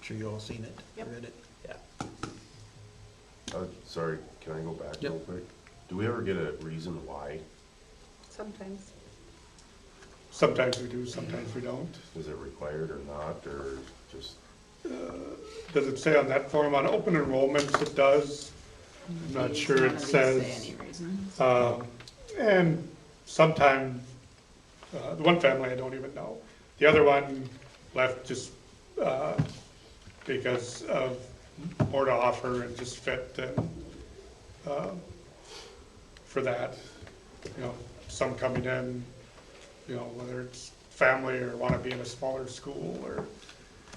sure you all seen it, Yep. read it. Yeah. Uh, sorry, can I go back Yep. real quick? Do we ever get a reason why? Sometimes. Sometimes we do, sometimes we don't. Is it required or not, or just, Does it say on that form, on open enrollments, it does? I'm not sure it says. Um, And sometime, uh, the one family I don't even know. The other one left just uh, because of more to offer and just fit and, um, for that. You know, some coming in, you know, whether it's family or want to be in a smaller school or,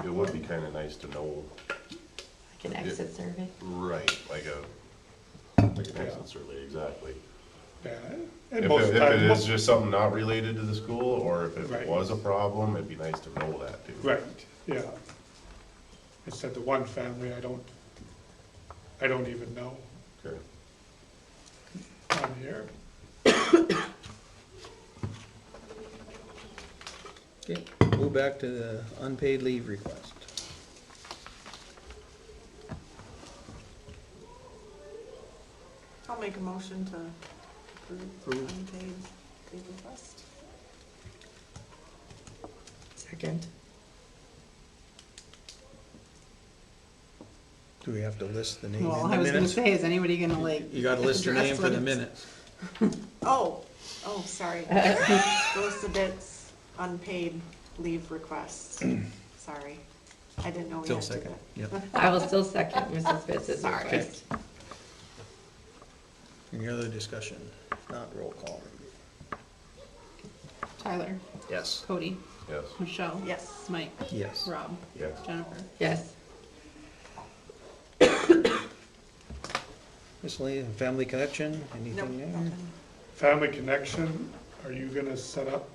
it would be kinda nice to know, Like an exit survey? right, like a, like an Yeah. exit survey, exactly. yeah. If and it, most if time- it is just something not related to the school, or if it Right. was a problem, it'd be nice to know that too. Right, yeah. It's that the one family, I don't, I don't even know Okay, on here. Okay, go back to the unpaid leave request. I'll make a motion to approve Approve. unpaid leave request. Second. Do we have to list the name in Well, the I was gonna minutes? say, is anybody gonna like? You gotta list your address name for what the it's- minutes. Oh, oh, sorry. Those bits unpaid leave requests. Sorry. I didn't know we Still had to do second, that. yep. I will still second Mrs. Fitz's Sorry. request. Any other discussion? If Not roll call. Tyler, Yes. Cody, yes, Michelle. Yes. Mike, Yes. Rob, yes. Jennifer. Yes. Miscellaneous and family connection, Nope, anything there? nothing. Family Connection, are you gonna set up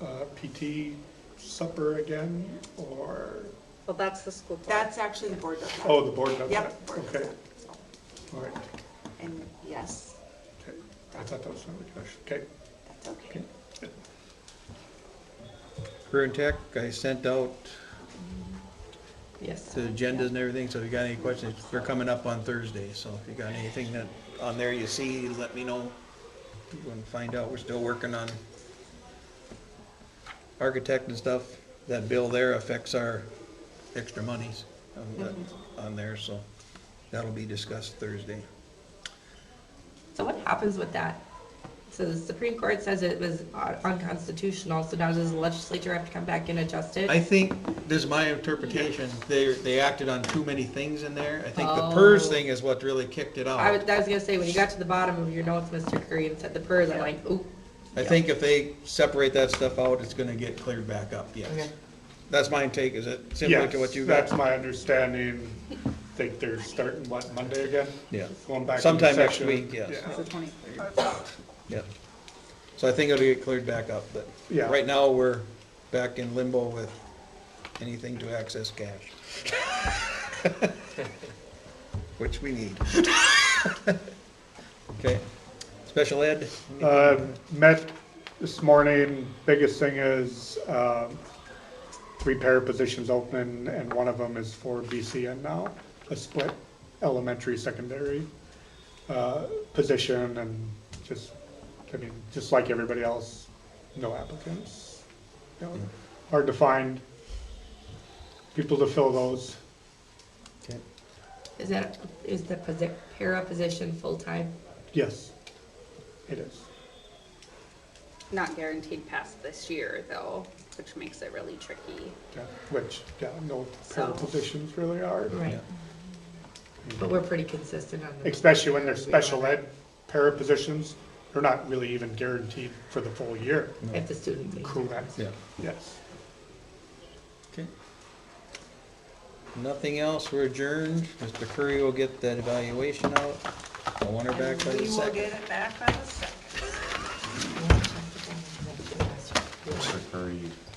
uh, PT supper again, or, Well, that's the school board. That's actually the board does that. oh, the board does that? Yep. board does Okay, that, so. all right, And yes, okay. I thought that was Family Connection, okay. that's okay. Career and Tech, I sent out Yes. the agendas and everything, so if you got any questions, they're coming up on Thursday, so if you got anything that, on there you see, let me know. You can find out, we're still working on architect and stuff, that bill there affects our extra monies on Mm-hmm. the- on there, so that'll be discussed Thursday. So what happens with that? So the Supreme Court says it was un- unconstitutional, so now does the legislature have to come back and adjust it? I think, this is my interpretation, they, they acted on too many things in there, I think the Oh. PERS thing is what really kicked it I was, out. I was gonna say, when you got to the bottom of your notes, Mr. Curry, and said the PERS, I'm like, ooh. I think if they separate that stuff out, it's gonna get cleared back up, yes. Okay. That's my take, is it similar to what you Yes, got? That's my understanding. Think they're starting, what, Monday again? Yeah. Going back. into Sometime next session. week, yes. Yeah. It's Oh. the twenty-third. Yep. So I think it'll get cleared back up, but Yeah. right now, we're back in limbo with anything to access cash. Which we need. Okay, special ed, Uh, Met this morning, biggest thing is um, three pair of positions open, and one of them is for BCN now, a split elementary, secondary uh, position, and just, I mean, just like everybody else, no applicants. You know, Hard to find people to fill those. Okay. Is that, is the posi- para position full-time? Yes, it is. Not guaranteed past this year, though, which makes it really tricky. Yeah, Which, yeah, no pair of So- positions really are. Right. But we're pretty consistent on the. especially when they're special ed para positions, they're not really even guaranteed for the full year. If the student. leaves. Correct, yeah, yes. okay. Nothing else, we're adjourned, Mr. Curry will get that evaluation out, I want her back by the We will second. get it back on the second. Mr. Curry,